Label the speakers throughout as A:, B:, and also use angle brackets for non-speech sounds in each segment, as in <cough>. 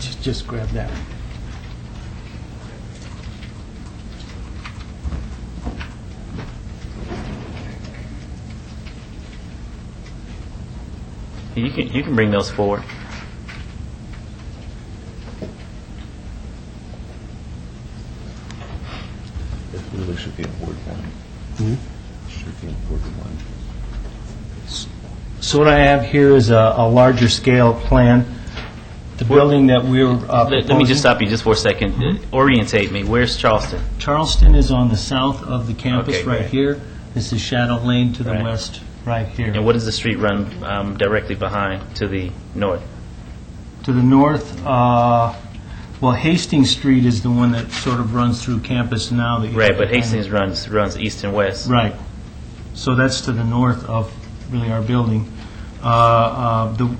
A: just grab that.
B: You can, you can bring those forward.
C: It really should be a board one. Should be a board one.
A: So what I have here is a, a larger scale plan. The building that we're uh,
B: Let let me
A: proposing, Mm-hmm.
B: just stop you just for a second. Uh, Orientate me. Where's Charleston?
A: Charleston is on the south of the campus,
B: Okay,
A: right
B: great.
A: here. This is Shadow Lane to the
B: Right.
A: west, right here.
B: And what does the street run um, directly behind to the north?
A: To the north, uh, well, Hastings Street is the one that sort of runs through campus now. that you-
B: Right, but Hastings runs, runs east and west.
A: Right. So that's to the north of really our building. Uh, uh, The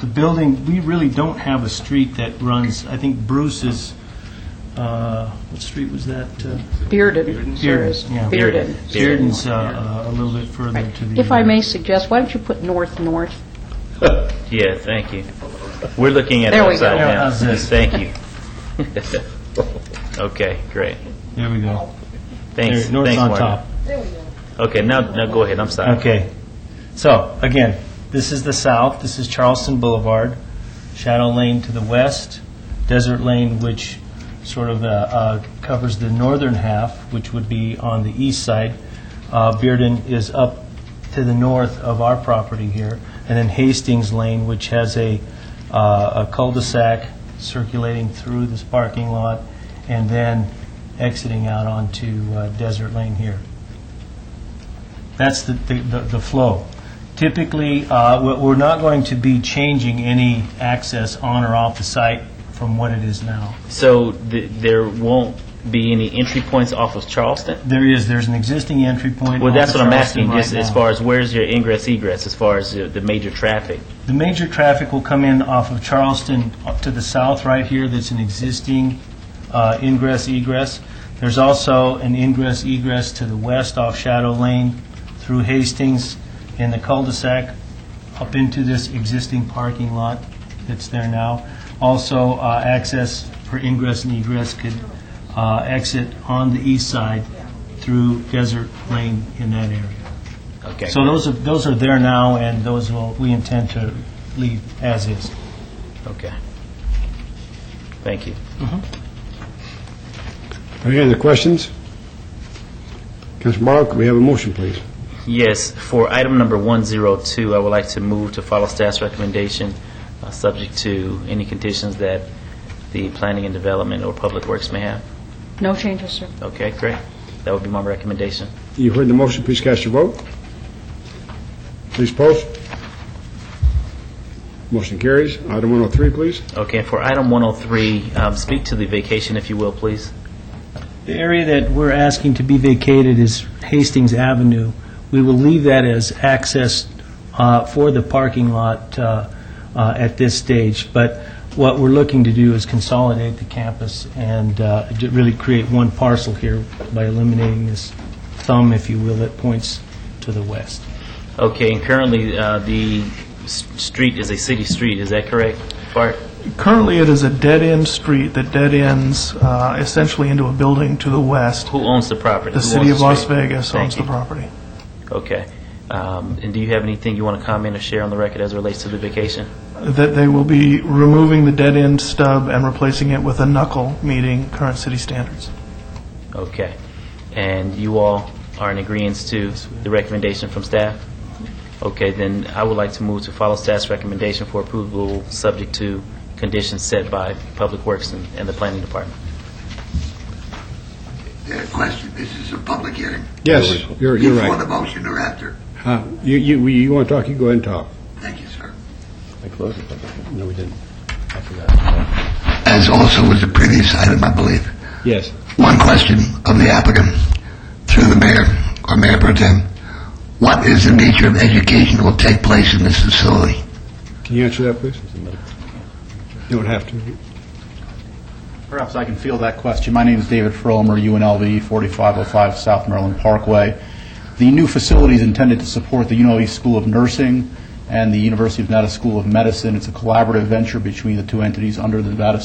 A: the building, we really don't have a street that runs, I think Bruce's, uh, what street was that? Uh,
D: Bearden.
A: Bearden's, yeah.
D: Bearden.
A: Bearden's uh, uh, a little bit further to the...
D: If I may suggest, why don't you put north, north?
B: Yeah, thank you. We're looking at it
D: There we
B: upside
D: go.
B: down.
A: How's this?
B: Thank you.
A: <laughs>
B: Okay, great.
A: There we go.
B: Thanks.
A: There, North's
B: Thanks,
A: on
B: Warner.
A: top.
B: Okay, now, now go ahead. I'm sorry.
A: Okay. So, again, this is the south, this is Charleston Boulevard, Shadow Lane to the west, Desert Lane, which sort of uh, uh, covers the northern half, which would be on the east side. Uh, Bearden is up to the north of our property here, and then Hastings Lane, which has a uh, a cul-de-sac circulating through this parking lot, and then exiting out onto uh, Desert Lane here. That's the, the- the the flow. Typically, uh, we- we're not going to be changing any access on or off the site from what it is now.
B: So th- there won't be any entry points off of Charleston?
A: There is, there's an existing entry point.
B: Well,
A: off
B: that's
A: of
B: what I'm
A: Charleston
B: asking, just
A: right
B: as
A: now.
B: far as where's your ingress egress, as far as uh, the major traffic?
A: The major traffic will come in off of Charleston up to the south right here, that's an existing uh, ingress egress. There's also an ingress egress to the west off Shadow Lane through Hastings in the cul-de-sac up into this existing parking lot that's there now. Also, uh, access for ingress and egress could uh, exit on the east side through Desert Lane in that area.
B: Okay.
A: So those are, those are there now, and those will, we intend to leave as is.
B: Okay. Thank you.
E: Any other questions? Councilor Morrow, could we have a motion, please?
B: Yes, for item number 102, I would like to move to follow staff's recommendation, uh, subject to any conditions that the planning and development or public works may have.
D: No changes, sir.
B: Okay, great. That would be my recommendation.
E: You heard the motion, please cast your vote. Please post. Motion carries. Item 103, please.
B: Okay, for item 103, um, speak to the vacation, if you will, please.
A: The area that we're asking to be vacated is Hastings Avenue. We will leave that as access uh, for the parking lot uh, uh, at this stage, but what we're looking to do is consolidate the campus and uh, ju- really create one parcel here by eliminating this thumb, if you will, that points to the west.
B: Okay, and currently, uh, the s- street is a city street, is that correct, Bart?
F: Currently, it is a dead-end street that dead ends uh, essentially into a building to the west.
B: Who owns the property?
F: The
B: Who
F: city
B: owns
F: of Las
B: street?
F: Vegas
B: Thank
F: owns the
B: you.
F: property.
B: Okay. Um, And do you have anything you want to comment or share on the record as it relates to the vacation?
F: That they will be removing the dead-end stub and replacing it with a knuckle, meeting current city standards.
B: Okay. And you all are in agreement to the recommendation from staff? Okay, then I would like to move to follow staff's recommendation for approval, subject to conditions set by Public Works and and the Planning Department.
G: Uh, Question, this is a public hearing.
E: Yes, you're you're
G: Before the
E: right.
G: motion or after?
E: Huh? Uh, You you you want to talk, you go ahead and talk.
G: Thank you, sir.
C: I close the public hearing.
E: No, we didn't. I forgot.
G: As also was the previous item, I believe.
E: Yes.
G: One question of the applicant, through the mayor, or Mayor Pro Tem. What is the nature of education that will take place in this facility?
E: Can you answer that, please? You don't have to.
H: Perhaps I can field that question. My name is David Fromer, UNLV, 4505 South Maryland Parkway. The new facility is intended to support the UNLV School of Nursing and the University of Nevada School of Medicine. It's a collaborative venture between the two entities under the Nevada